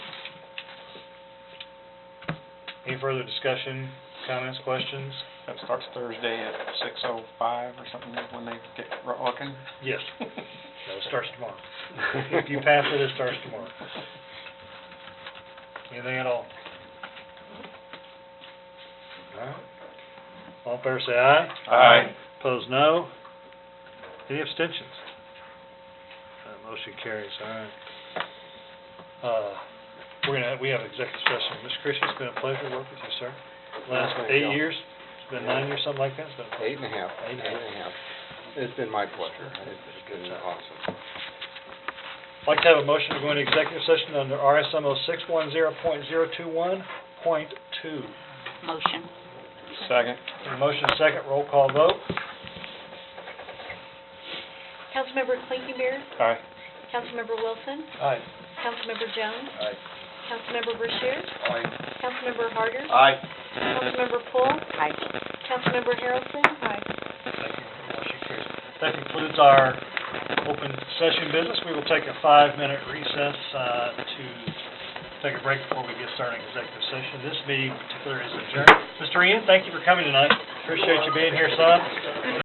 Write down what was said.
Any further discussion, comments, questions? That starts Thursday at six oh five or something, when they get ro- looking. Yes. No, it starts tomorrow. If you pass it, it starts tomorrow. Anything at all? Alright. All in favor, say aye. Aye. Opposed, no. Any abstentions? Uh, motion carries, alright. Uh, we're gonna, we have executive session. Mr. Christian, it's been a pleasure to work with you, sir. Last Thank eight you. years, it's been nine years, something like that, it's been. Eight and a half, Eight eight and and a half. a half. It's been my pleasure. It's been awesome. I'd like to have a motion to go into executive session under RSMO six one zero point zero two one point two. Motion. Second. Motion and second, roll call vote. Councilmember Clinkenberry, Aye. Councilmember Wilson, Aye. Councilmember Jones. Aye. Councilmember Brashear, Aye. Councilmember Harder, Aye. Councilmember Poole, Aye. Councilmember Harrelson. That concludes our open session business. We will take a five-minute recess, uh, to take a break before we get started in executive session. This meeting in particular is adjourned. Mr. Ian, thank you for coming tonight. Appreciate you being here, son.